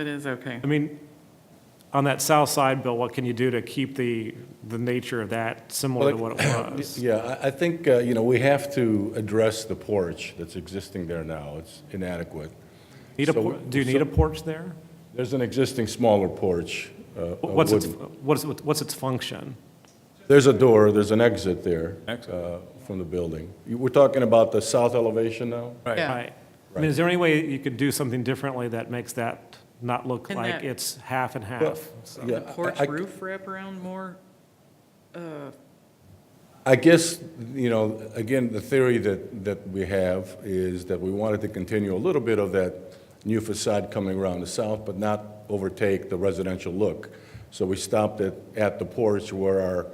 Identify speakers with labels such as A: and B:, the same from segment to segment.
A: It is okay.
B: I mean, on that south side, Bill, what can you do to keep the, the nature of that similar to what it was?
C: Yeah, I- I think, uh, you know, we have to address the porch that's existing there now. It's inadequate.
B: Need a,
C: So-
B: por- do you need a porch there?
C: There's an existing smaller porch. uh, a
B: What's its,
C: wooden-
B: what's, what's its function?
C: There's a door, there's an exit there uh, from the building. You- We're talking about the south elevation now?
A: Yeah.
B: Right. I mean, is there any way you could do something differently that makes that not look
A: Can
B: like
A: that-
B: it's half and
C: Well,
B: half?
C: yeah,
A: The porch
C: I- I-
A: roof wraparound more? Uh,
C: I guess, you know, again, the theory that, that we have is that we wanted to continue a little bit of that new facade coming around the south, but not overtake the residential look. So we stopped it at the porch where our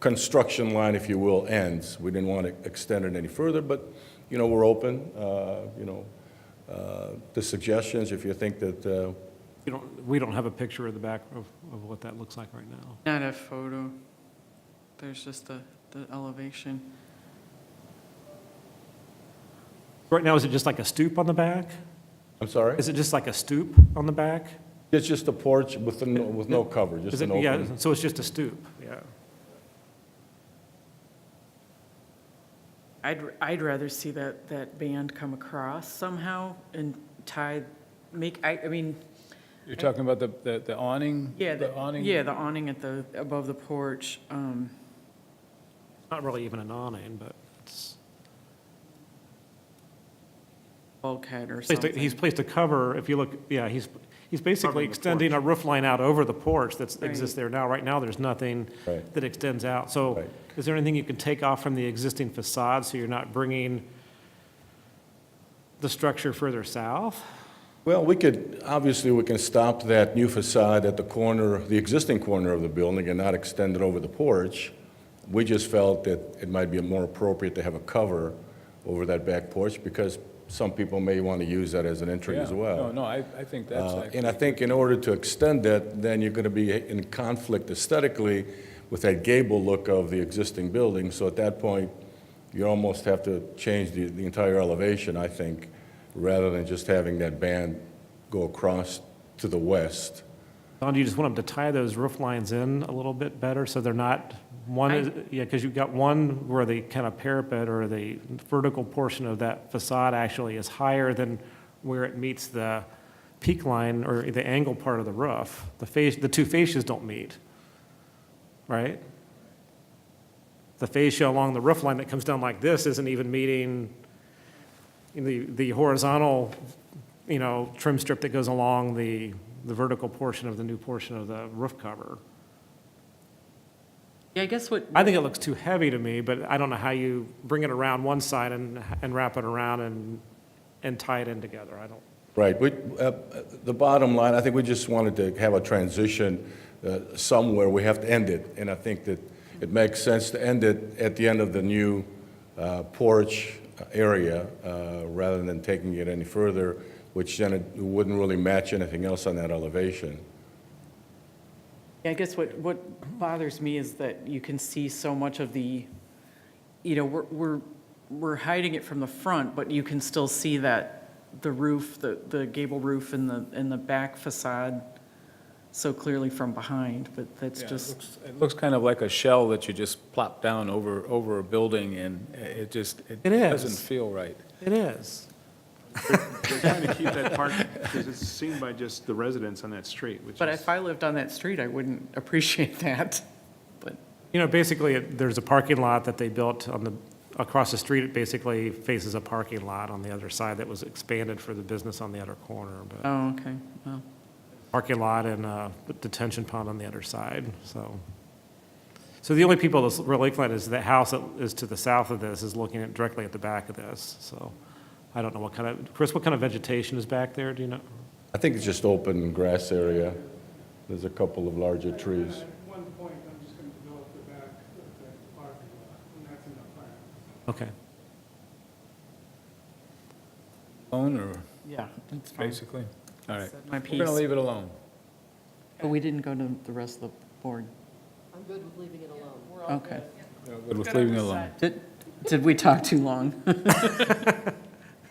C: construction line, if you will, ends. We didn't want to extend it any further, but, you know, we're open, uh, you know, uh, to suggestions if you think that, uh,
B: You don't, we don't have a picture of the back of, of what that looks like right now.
A: Not a photo. There's just the, the elevation.
B: Right now, is it just like a stoop on the back?
C: I'm sorry?
B: Is it just like a stoop on the back?
C: It's just a porch with, no- with no cover,
B: Is
C: just
B: it,
C: an
B: yeah,
C: open.
B: so it's just a stoop, yeah.
A: I'd, I'd rather see that, that band come across somehow and tie, make, I, I mean,
D: You're talking about the- the, the awning?
A: yeah,
D: The
A: the,
D: awning?
A: yeah, the awning at the, above the porch. um,
B: Not really even an awning, but it's,
A: bulkhead or
B: placed a-
A: something.
B: he's placed a cover, if you look, yeah, he's, he's basically
D: Covering the
B: extending a roof line out over the porch that
A: Right.
B: exists there now. Right now, there's nothing
C: Right.
B: that extends out. So
C: Right.
B: is there anything you can take off from the existing facade so you're not bringing the structure further south?
C: Well, we could, obviously, we can stop that new facade at the corner, the existing corner of the building and not extend it over the porch. We just felt that it might be more appropriate to have a cover over that back porch because some people may want to use that as an entry
D: Yeah.
C: as well.
D: No, no, I, I think that's,
C: Uh,
D: ac-
C: And I think in order to extend that, then you're going to be in conflict aesthetically with that gable look of the existing building. So at that point, you almost have to change the, the entire elevation, I think, rather than just having that band go across to the west.
B: Don, do you just want them to tie those roof lines in a little bit better so they're not, one,
A: I-
B: is- yeah, because you've got one where the kind of parapet or the vertical portion of that facade actually is higher than where it meets the peak line or the angle part of the roof. The face, the two fascias don't meet, right? The fascia along the roof line that comes down like this isn't even meeting the, the horizontal you know, trim strip that goes along the, the vertical portion of the new portion of the roof cover.
A: Yeah, I guess what,
B: I think it looks too heavy to me, but I don't know how you bring it around one side and, and wrap it around and, and tie it in together. I don't,
C: Right, but uh, the bottom line, I think we just wanted to have a transition uh, somewhere, we have to end it, and I think that it makes sense to end it at the end of the new uh, porch area, uh, rather than taking it any further, which then it wouldn't really match anything else on that elevation.
A: I guess what, what bothers me is that you can see so much of the, you know, we're, we're, we're hiding it from the front, but you can still see that, the roof, the, the gable roof and the, and the back facade so clearly from behind, but that's
D: yeah, it
A: just,
D: looks- it looks kind of like a shell that you just plop down over, over a building, and it just, it
B: It is.
D: doesn't feel right.
B: it is.
E: They're trying to keep that park, because it's seen by just the residents on that street, which
A: but
E: is,
A: if I lived on that street, I wouldn't appreciate that, but.
B: You know, basically, it- there's a parking lot that they built on the, across the street. It basically faces a parking lot on the other side that was expanded for the business on the other corner, but
A: Oh, okay, well,
B: parking lot and uh, detention pond on the other side, so. So the only people that's really looking at is the house that is to the south of this is looking at directly at the back of this, so. I don't know what kind of, Chris, what kind of vegetation is back there, do you know?
C: I think it's just open grass area, there's a couple of larger trees.
F: At one point, I'm just going to develop the back of the parking lot, and that's in the plan.
B: Okay.
D: Alone, or,
A: yeah, that's fine.
D: basically? All right.
A: My
D: We're
A: piece,
D: going to leave it alone.
A: but we didn't go to the rest of the board,
G: I'm good with leaving it alone.
A: okay.
D: Good with leaving it alone.
A: Did, did we talk too long?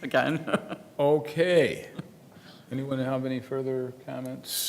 A: Again?
D: Okay. Anyone have any further comments?